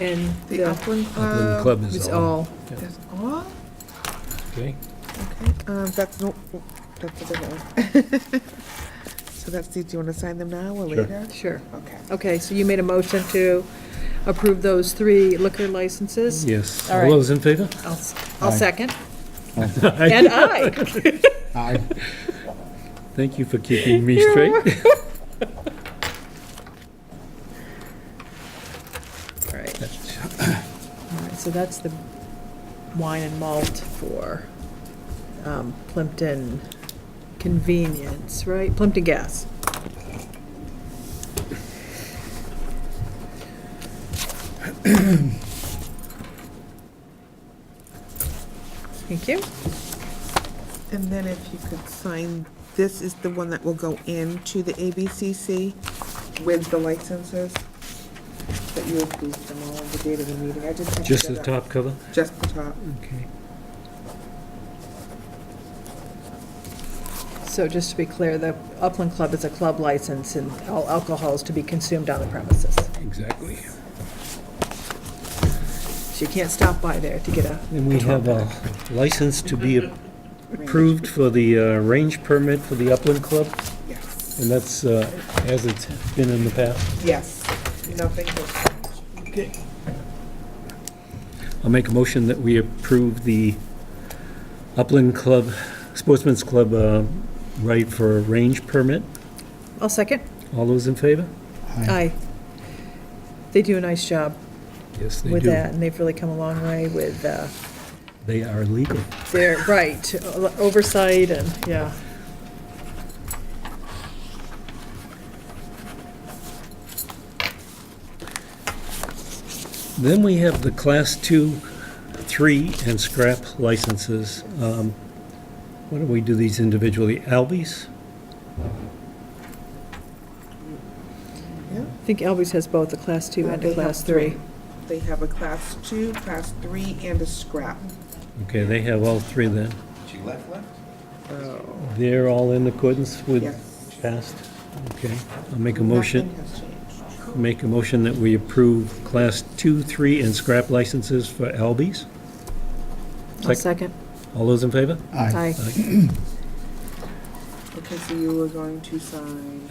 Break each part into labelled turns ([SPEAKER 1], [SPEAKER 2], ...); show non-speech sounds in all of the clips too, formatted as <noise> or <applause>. [SPEAKER 1] and uh,
[SPEAKER 2] The
[SPEAKER 1] the,
[SPEAKER 2] Upland Club.
[SPEAKER 3] Upland Club is
[SPEAKER 2] It's
[SPEAKER 3] Um, all.
[SPEAKER 2] all.
[SPEAKER 3] Yeah.
[SPEAKER 2] That's all?
[SPEAKER 3] Okay,
[SPEAKER 2] Okay, um, that's no, that's a different one. <laughs> So that's, the- do you want to sign them now or
[SPEAKER 3] Sure.
[SPEAKER 2] later?
[SPEAKER 1] sure.
[SPEAKER 2] Okay.
[SPEAKER 1] Okay, so you made a motion to approve those three liquor licenses?
[SPEAKER 3] yes.
[SPEAKER 1] All
[SPEAKER 3] All
[SPEAKER 1] right.
[SPEAKER 3] those in favor?
[SPEAKER 1] I'll, s- I'll
[SPEAKER 3] Aye.
[SPEAKER 1] second. <laughs> And
[SPEAKER 3] <laughs>
[SPEAKER 1] I.
[SPEAKER 3] Aye. Thank you for keeping me straight.
[SPEAKER 1] All right. All right, so that's the wine and malt for um, Plimpton Convenience, right? Plimpton
[SPEAKER 3] <clears throat>
[SPEAKER 1] Gas. Thank you.
[SPEAKER 2] And then if you could sign, this is the one that will go into the ABCC with the licenses, that you approved them all on the date of the meeting. I just. have to
[SPEAKER 3] <laughs> Just
[SPEAKER 2] get
[SPEAKER 3] the
[SPEAKER 2] up-
[SPEAKER 3] top cover?
[SPEAKER 2] Just the top.
[SPEAKER 3] Okay.
[SPEAKER 1] So just to be clear, the Upland Club is a club license and all alcohol is to be consumed on the premises.
[SPEAKER 3] Exactly.
[SPEAKER 1] So you can't stop by there to get a,
[SPEAKER 3] And we have a license to be approved for the uh, range permit for the Upland Club,
[SPEAKER 2] Yes.
[SPEAKER 3] and that's uh, as it's been in the past.
[SPEAKER 2] Yes. Nothing but
[SPEAKER 3] Okay. I'll make a motion that we approve the Upland Club, Sportsman's Club uh, right for a range permit.
[SPEAKER 1] I'll second.
[SPEAKER 3] All those in favor?
[SPEAKER 1] Aye. They do a nice job
[SPEAKER 3] Yes, they
[SPEAKER 1] with
[SPEAKER 3] do.
[SPEAKER 1] that, and they've really come a long way with uh,
[SPEAKER 3] They are legal.
[SPEAKER 1] their, right, oversight and, yeah.
[SPEAKER 3] Then we have the Class 2, 3, and scrap licenses. Um, Why don't we do these individually? Albies?
[SPEAKER 1] I think Albies has both a Class 2
[SPEAKER 2] Uh,
[SPEAKER 1] and
[SPEAKER 2] they
[SPEAKER 1] a
[SPEAKER 2] have
[SPEAKER 1] Class 3.
[SPEAKER 2] They have a class two, class three, and a scrap.
[SPEAKER 3] Okay, they have all three then.
[SPEAKER 4] She left, left?
[SPEAKER 3] They're all in accordance with
[SPEAKER 2] Yes.
[SPEAKER 3] past? Okay, I'll make a motion,
[SPEAKER 2] Nothing has changed.
[SPEAKER 3] make a motion that we approve Class 2, 3, and scrap licenses for Albies.
[SPEAKER 1] I'll
[SPEAKER 3] Sec-
[SPEAKER 1] second.
[SPEAKER 3] All those in favor?
[SPEAKER 1] Aye.
[SPEAKER 3] Aye.
[SPEAKER 2] Okay, so you were going to sign,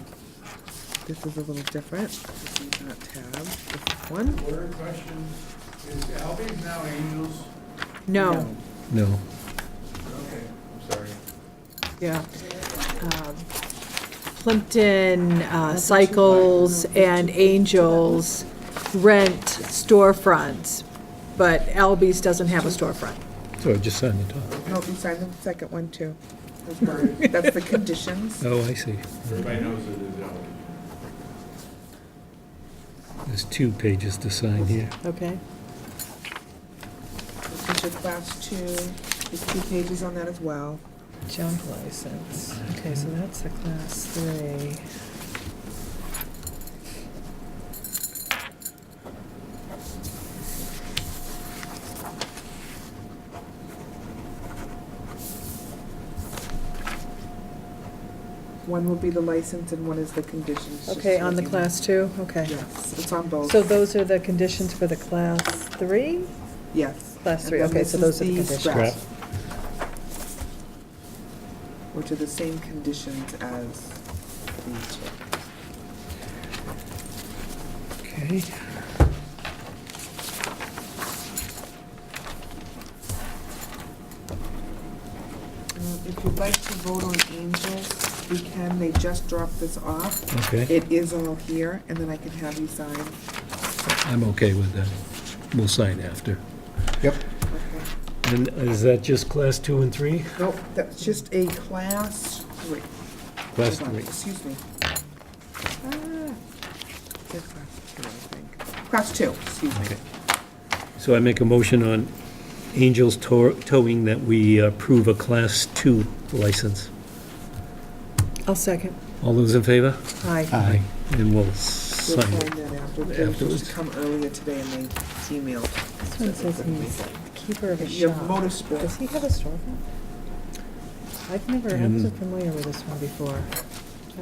[SPEAKER 2] this is a little different, this is not tab, this is one.
[SPEAKER 4] Order question, is Albies now Angels?
[SPEAKER 1] No,
[SPEAKER 3] No.
[SPEAKER 4] Okay, I'm sorry.
[SPEAKER 1] yeah. Um, Plimpton uh, Cycles and Angels rent storefronts, but Albies doesn't have a storefront.
[SPEAKER 3] So I just signed the top.
[SPEAKER 2] No, you signed the second one too. <laughs> That's the conditions.
[SPEAKER 3] Oh, I see.
[SPEAKER 4] Everybody knows it is Albies.
[SPEAKER 3] There's two pages to sign here.
[SPEAKER 1] Okay.
[SPEAKER 2] This is your class two, there's two pages on that as well.
[SPEAKER 1] Junk license. Okay, so that's a class three.
[SPEAKER 2] One will be the license and one is the conditions. just
[SPEAKER 1] Okay,
[SPEAKER 2] so
[SPEAKER 1] on the
[SPEAKER 2] you know.
[SPEAKER 1] class two, okay.
[SPEAKER 2] Yes, it's on both,
[SPEAKER 1] So those are the conditions for the class three?
[SPEAKER 2] yes.
[SPEAKER 1] Class
[SPEAKER 2] And
[SPEAKER 1] three,
[SPEAKER 2] then
[SPEAKER 1] okay,
[SPEAKER 2] this
[SPEAKER 1] so
[SPEAKER 2] is
[SPEAKER 1] those are the
[SPEAKER 2] the
[SPEAKER 1] conditions.
[SPEAKER 2] scrap.
[SPEAKER 3] Scrap.
[SPEAKER 2] Which are the same conditions as the two.
[SPEAKER 3] Okay.
[SPEAKER 2] Um, If you'd like to vote on Angels, we can, they just dropped this off.
[SPEAKER 3] Okay,
[SPEAKER 2] It is all here, and then I can have you sign.
[SPEAKER 3] I'm okay with that. We'll sign after.
[SPEAKER 2] Okay.
[SPEAKER 3] And is that just class two and three?
[SPEAKER 2] Nope, that's just a class three.
[SPEAKER 3] Class
[SPEAKER 2] Hold on,
[SPEAKER 3] three.
[SPEAKER 2] Excuse me. Ah, they're class two, I think. Class two, excuse me.
[SPEAKER 3] Okay. So I make a motion on Angels Tow- Towing that we approve a class two license.
[SPEAKER 1] I'll second.
[SPEAKER 3] All those in favor?
[SPEAKER 1] Aye.
[SPEAKER 3] Aye. And we'll
[SPEAKER 2] We'll
[SPEAKER 3] sign
[SPEAKER 2] sign
[SPEAKER 3] it.
[SPEAKER 2] that after. They were supposed
[SPEAKER 3] afterwards.
[SPEAKER 2] to come earlier today, and they emailed.
[SPEAKER 1] This one says he's keeper of a
[SPEAKER 2] Your
[SPEAKER 1] shop. Does
[SPEAKER 2] motorsport,
[SPEAKER 1] he have a storefront? I've never, I
[SPEAKER 3] Um,
[SPEAKER 1] wasn't familiar with this one before.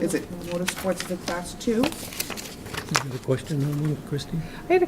[SPEAKER 2] is it motorsports is a class two?
[SPEAKER 3] Is there a question on one, Christine?
[SPEAKER 1] I had a